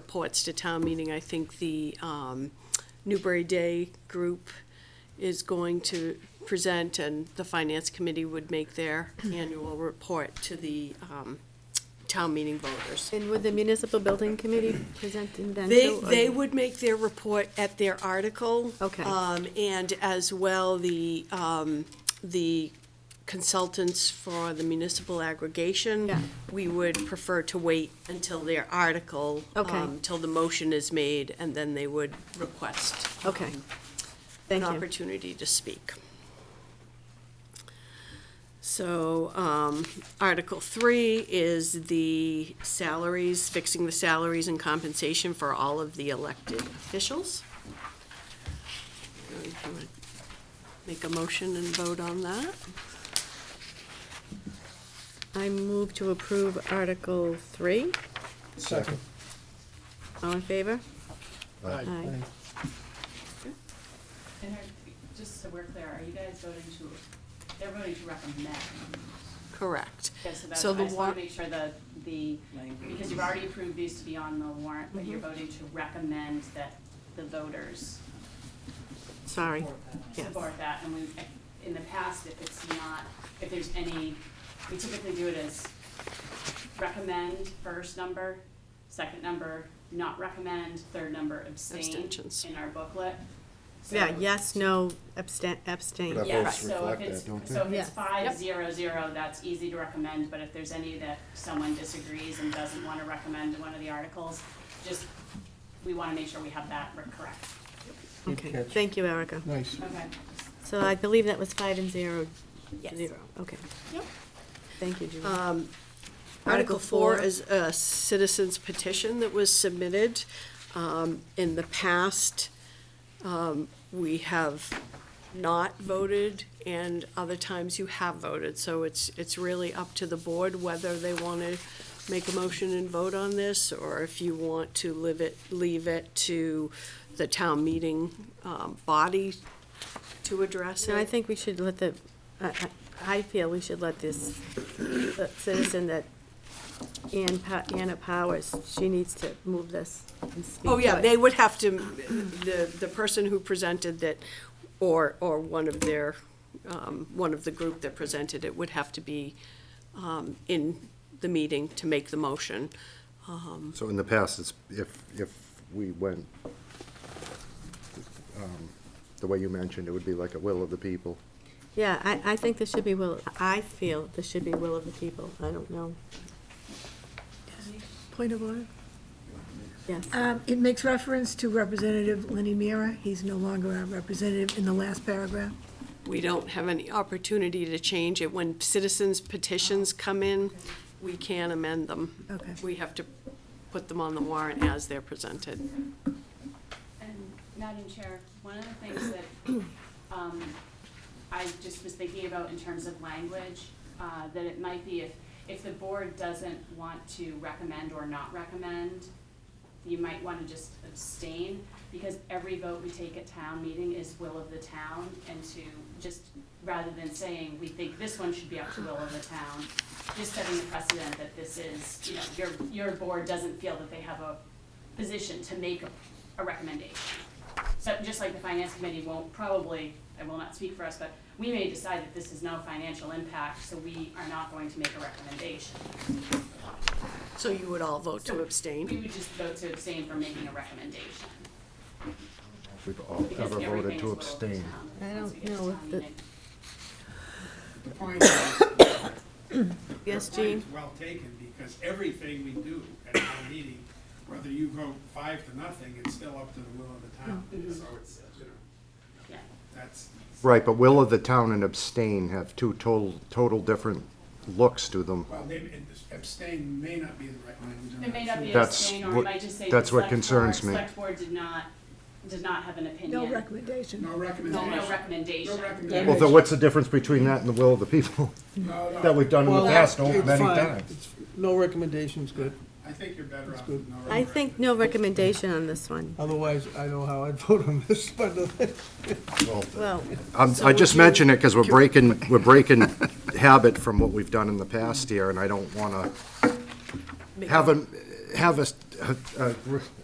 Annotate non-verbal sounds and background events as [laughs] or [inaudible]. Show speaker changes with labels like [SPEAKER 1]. [SPEAKER 1] reports to town meeting. I think the um, Newbury Day group is going to present, and the Finance Committee would make their annual report to the um, town meeting voters.
[SPEAKER 2] And would the municipal building committee present in then?
[SPEAKER 1] They,
[SPEAKER 2] too, or-
[SPEAKER 1] they would make their report at their article.
[SPEAKER 2] Okay.
[SPEAKER 1] Um, and as well, the, um, the consultants for the municipal aggregation.
[SPEAKER 2] Yeah.
[SPEAKER 1] We would prefer to wait until their article.
[SPEAKER 2] Okay.
[SPEAKER 1] um, Till the motion is made, and then they would request
[SPEAKER 2] Okay,
[SPEAKER 1] an
[SPEAKER 2] thank you.
[SPEAKER 1] opportunity to speak. So, um, Article Three is the salaries, fixing the salaries and compensation for all of the elected officials. Uh, if you wanna Make a motion and vote on that?
[SPEAKER 2] I move to approve Article Three.
[SPEAKER 3] Second.
[SPEAKER 2] All in favor?
[SPEAKER 3] Aye.
[SPEAKER 2] Aye.
[SPEAKER 4] And are, just so we're clear, are you guys voting to, they're voting to recommend?
[SPEAKER 1] Correct.
[SPEAKER 4] Okay, so that's,
[SPEAKER 1] So
[SPEAKER 4] I
[SPEAKER 1] the
[SPEAKER 4] just
[SPEAKER 1] warrant,
[SPEAKER 4] want to make sure that the, because you've already approved these to be on the warrant, but you're voting to recommend that the voters
[SPEAKER 2] Sorry. Yes.
[SPEAKER 4] support that, and we, in the past, if it's not, if there's any, we typically do it as recommend, first number, second number, not recommend, third number, abstain
[SPEAKER 1] Abstentions.
[SPEAKER 4] in our booklet. So-
[SPEAKER 2] Yeah, yes, no, abstain, abstain.
[SPEAKER 3] But Our
[SPEAKER 4] Yeah,
[SPEAKER 3] votes
[SPEAKER 4] so if
[SPEAKER 3] reflect
[SPEAKER 4] it's,
[SPEAKER 3] that, don't
[SPEAKER 4] so if
[SPEAKER 2] they?
[SPEAKER 4] it's
[SPEAKER 2] Yeah.
[SPEAKER 4] five
[SPEAKER 1] Yep.
[SPEAKER 4] zero zero, that's easy to recommend, but if there's any that someone disagrees and doesn't wanna recommend one of the articles, just, we wanna make sure we have that re- correct.
[SPEAKER 2] Okay,
[SPEAKER 3] catch.
[SPEAKER 2] thank you, Erica.
[SPEAKER 3] Nice.
[SPEAKER 4] Okay.
[SPEAKER 2] So I believe that was five and zero,
[SPEAKER 1] Yes.
[SPEAKER 2] zero, okay.
[SPEAKER 1] Yep.
[SPEAKER 2] Thank you, Julie.
[SPEAKER 1] Article
[SPEAKER 2] Article
[SPEAKER 1] four
[SPEAKER 2] four.
[SPEAKER 1] is a citizen's petition that was submitted. Um, in the past, um, we have not voted, and other times you have voted, so it's, it's really up to the board whether they wanna make a motion and vote on this, or if you want to live it, leave it to the town meeting, um, body to address
[SPEAKER 2] No, I
[SPEAKER 1] it.
[SPEAKER 2] think we should let the, I, I- I feel we should let this the citizen that Ann, Pa- Anna Powers, she needs to move this and speak
[SPEAKER 1] Oh,
[SPEAKER 2] to
[SPEAKER 1] yeah,
[SPEAKER 2] it.
[SPEAKER 1] they would have to, the, the person who presented that, or, or one of their, um, one of the group that presented it would have to be, um, in the meeting to make the motion.
[SPEAKER 3] So in the past, it's, if, if we went, um, the way you mentioned, it would be like a will of the people.
[SPEAKER 2] Yeah, I, I think this should be will, I feel this should be will of the people, I don't know.
[SPEAKER 5] Point of order.
[SPEAKER 2] Yes,
[SPEAKER 5] Um, It makes reference to Representative Lenny Mira. He's no longer our representative in the last paragraph.
[SPEAKER 1] We don't have any opportunity to change it. When citizens petitions come in, we can amend them.
[SPEAKER 5] Okay.
[SPEAKER 1] We have to put them on the warrant as they're presented.
[SPEAKER 4] And Madam Chair, one of the things that um, I just was thinking about in terms of language, uh, that it might be if, if the board doesn't want to recommend or not recommend, you might want to just abstain, because every vote we take at town meeting is will of the town, and to just, rather than saying, we think this one should be up to will of the town, just setting the precedent that this is, you know, your, your board doesn't feel that they have a position to make a, a recommendation. So just like the finance committee won't probably, I will not speak for us, but we may decide that this is no financial impact, so we are not going to make a recommendation.
[SPEAKER 1] So you would all vote to
[SPEAKER 4] We
[SPEAKER 1] abstain?
[SPEAKER 4] would just vote to abstain from making a recommendation.
[SPEAKER 3] We've all
[SPEAKER 4] Because
[SPEAKER 3] ever
[SPEAKER 4] everything
[SPEAKER 3] voted
[SPEAKER 4] is
[SPEAKER 3] to
[SPEAKER 4] will of the
[SPEAKER 3] abstain.
[SPEAKER 4] town
[SPEAKER 2] I
[SPEAKER 4] once
[SPEAKER 2] don't
[SPEAKER 4] we get to
[SPEAKER 2] know if
[SPEAKER 4] town
[SPEAKER 2] the-
[SPEAKER 4] meeting.
[SPEAKER 2] [coughs] yes,
[SPEAKER 6] Your
[SPEAKER 2] Jean?
[SPEAKER 6] point is well taken, because everything we do at town meeting, whether you vote five to nothing, it's still up to the will of the town.
[SPEAKER 4] Mm-hmm.
[SPEAKER 6] So it's, you know,
[SPEAKER 4] Yeah.
[SPEAKER 6] that's,
[SPEAKER 3] Right, but will of the town and abstain have two total, total different looks to them.
[SPEAKER 6] well, they- abstain may not be the right language. I'm
[SPEAKER 4] It may not be
[SPEAKER 3] That's
[SPEAKER 4] abstain, or it
[SPEAKER 3] what-
[SPEAKER 4] might just say.
[SPEAKER 3] that's
[SPEAKER 4] the
[SPEAKER 3] what
[SPEAKER 4] select
[SPEAKER 3] concerns
[SPEAKER 4] board-
[SPEAKER 3] me.
[SPEAKER 4] Select board did not, did not have an opinion.
[SPEAKER 5] No recommendation.
[SPEAKER 6] No
[SPEAKER 4] No,
[SPEAKER 6] recommendation.
[SPEAKER 4] no recommendation.
[SPEAKER 6] No
[SPEAKER 3] Well, then
[SPEAKER 6] recommendation.
[SPEAKER 3] what's the difference between that and the will of the people [laughs]
[SPEAKER 6] No, no,
[SPEAKER 3] that we've done in the
[SPEAKER 7] Well,
[SPEAKER 3] past oh,
[SPEAKER 7] it's
[SPEAKER 3] many
[SPEAKER 7] fine.
[SPEAKER 3] times?
[SPEAKER 7] It's- No recommendation's good.
[SPEAKER 6] I think you're better off with
[SPEAKER 7] good.
[SPEAKER 6] no
[SPEAKER 2] I think no recommendation on this one.
[SPEAKER 7] Otherwise, I know how I'd [laughs] vote on this, but uh,
[SPEAKER 2] Well,
[SPEAKER 3] Um, I just mention it because we're breaking, we're breaking [laughs] habit from what we've done in the past here, and I don't want to have a, have a, uh, uh,